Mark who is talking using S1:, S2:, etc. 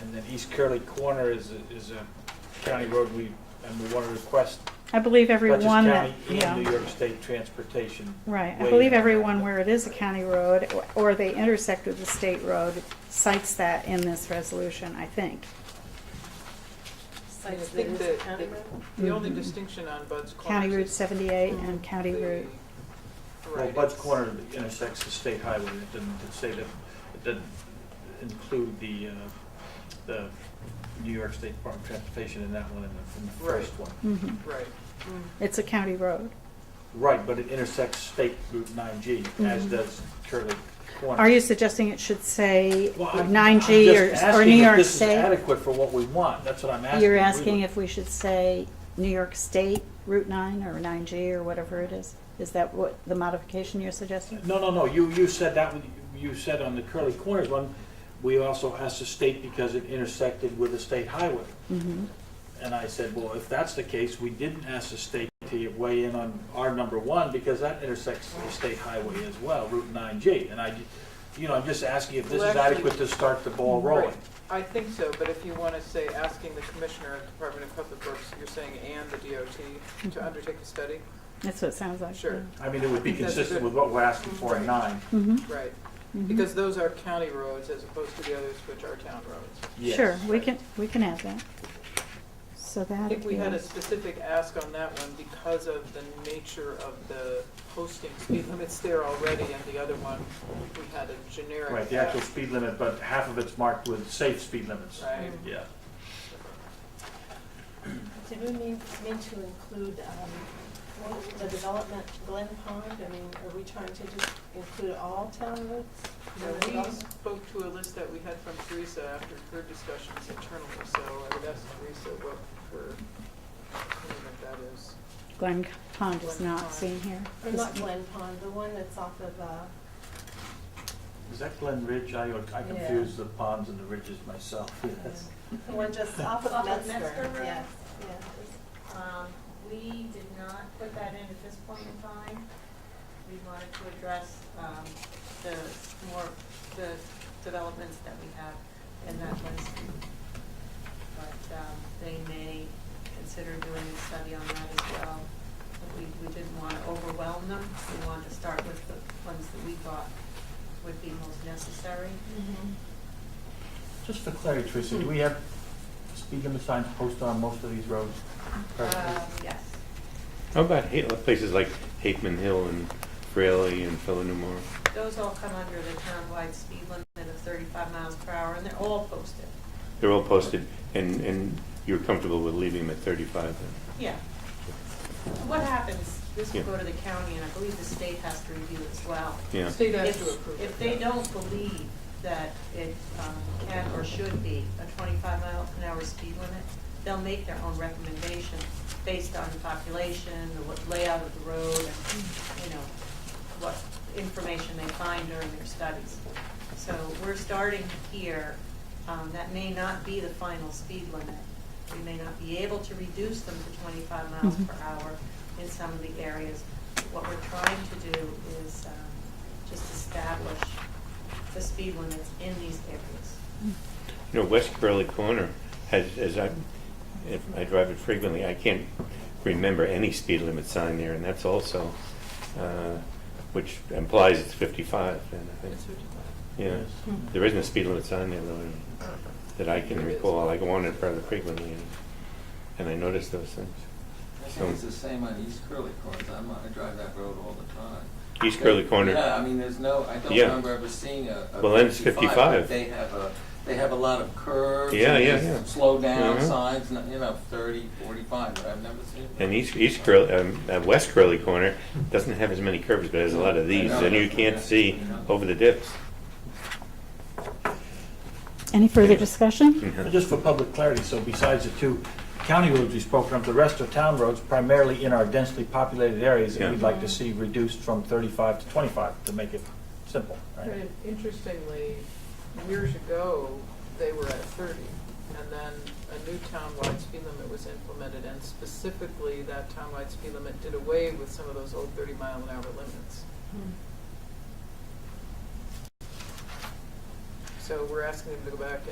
S1: And then East Curly Corner is, a- is a county road we, and we want to request
S2: I believe every
S1: Dutchess
S2: one that,
S1: County and New
S2: yeah,
S1: York State Transportation.
S2: right. I
S1: weigh
S2: believe
S1: in on
S2: every
S1: that.
S2: one where it is a county road or- or they intersect with the state road cites that in this resolution, I think.
S3: I
S4: I
S3: think
S4: think
S3: that
S4: that-
S3: the- the only distinction on Bud's Corners
S2: County Route
S3: is
S2: seventy-eight
S1: Mm-hmm.
S2: and County
S3: the-
S2: Route,
S1: Well,
S3: right,
S1: Bud's
S3: it's-
S1: Corner intersects the state highway, it didn't, it say that, it didn't include the, uh, the New York State Department of Transportation in that one and the- and the first one.
S2: mhm.
S3: Right.
S2: it's a county road.
S1: Right, but it intersects State Route nine G, as
S2: Mhm.
S1: does Curly Corner.
S2: Are you suggesting it should say
S1: Well, I'm-
S2: nine
S1: I'm
S2: G or,
S1: just
S2: or
S1: asking
S2: New
S1: if
S2: York
S1: This is
S2: State?
S1: adequate for what we want, that's what I'm asking.
S2: You're
S1: We
S2: asking
S1: would-
S2: if we should say New York State Route nine or nine G or whatever it is? Is that what the modification you're suggesting?
S1: No, no, no, you, you said that, one- you said on the Curly Corners one, we also asked the state because it intersected with the state highway.
S2: Mm-hmm.
S1: And I said, well, if that's the case, we didn't ask the state to weigh in on our number one because that intersects the state highway as well, Route nine G. And I, you know, I'm just asking if this
S3: Well,
S1: is
S3: actually-
S1: adequate to start the ball rolling.
S3: Right. I think so, but if you want to say asking the Commissioner of the Department of Public Works, you're saying and the DOT to undertake a study?
S2: That's what it sounds Mm-hmm. like.
S3: Sure,
S1: I mean, it would be
S3: That's
S1: consistent
S3: good.
S1: with what we're asking for in nine.
S2: Mm-hmm.
S3: right. Because those are county roads as opposed to the others which are town roads.
S1: Yes.
S2: Sure, we can, we can add that. So that.
S3: I think we had a
S2: is-
S3: specific ask on that one because of the nature of the posting speed limits there already, and the other one, we had a generic.
S1: Right, the actual
S3: ask,
S1: speed limit, but half of it's marked with safe speed limits.
S3: Right.
S1: Yeah.
S2: Mm-hmm.
S4: Did we mean, mean to include, um, what- the development Glen Pond? I mean, are we trying to just include all town roads?
S3: Now, we spoke to a list that we had from Teresa after her discussions internally, so I would ask Teresa what her, what that is.
S2: Glen Pond is
S3: Glen
S2: not
S3: Pond.
S2: seen here.
S4: Or not Glen Pond, the one that's off of, uh,
S1: Is that Glen Ridge? I, I confuse the ponds and the ridges myself. Yes.
S4: the one just off of
S5: Off of
S4: Metzger?
S5: Metzger Road?
S4: Yes,
S5: Um, we did not put that in at this point in time. We wanted to address, um, the more, the developments that we have in that list. But, um, they may consider doing a study on that as well. But we, we didn't want to overwhelm them. We wanted to start with the ones that we thought would be most necessary.
S1: Just for clarity, Teresa, do we have speed limit signs posted on most of these roads?
S5: Uh, yes.
S6: How about Ha- places like Hateman Hill and Fraley and Philanumor?
S5: Those all come under the town-wide speed limit of thirty-five miles per hour, and they're all posted.
S6: They're all posted, and, and you're comfortable with leaving them at 35 then?
S5: Yeah. What happens, this will
S6: Yeah.
S5: go to the county, and I believe the state has to review as well.
S6: Yeah.
S3: State has to approve
S5: If,
S3: it.
S5: if they don't believe that it um, can or should be a twenty-five mile an hour speed limit, they'll make their own recommendation based on the population, the what- layout of the road, and, you know, what information they find during their studies. So we're starting here, um, that may not be the final speed limit. We may not be able to reduce them to twenty-five miles
S2: Mhm.
S5: per hour in some of the areas. What we're trying to do is, um, just establish the speed limits in these areas.
S6: You know, West Curly Corner has, as I, if I drive it frequently, I can't remember any speed limit sign there, and that's also, uh, which implies it's 55, and I think,
S3: It's certified.
S6: yeah. There isn't a speed limit sign there though, that I can recall, I go on it rather frequently, and- and I notice those things.
S7: I think it's the same on East Curly Corners, I'm, on- I drive that road all the time.
S6: East Curly Corner.
S7: Yeah, I mean, there's no, I don't
S6: Yeah.
S7: remember ever seeing a. a
S6: Well, then it's 55.
S7: but They have a, they have a lot of curves.
S6: Yeah,
S7: and
S6: yeah,
S7: there's
S6: yeah.
S7: Slow down
S6: Mhm.
S7: signs, and, you know, thirty, forty-five, but I've never seen.
S6: And East, East Curly, um, uh, West Curly Corner doesn't have as many curves, but has a lot of these, and you can't see over the dips.
S2: Any further discussion?
S1: But Just for public clarity, so besides the two county roads we spoke of, the rest are town roads primarily in our densely populated areas that we'd
S6: Yeah.
S1: like to see reduced from 35 to 25, to make it simple, right?
S3: And Interestingly, years ago, they were at thirty, and then a new town-wide speed limit was implemented, and specifically, that town-wide speed limit did away with some of those old thirty-mile-an-hour limits. So we're asking them to go back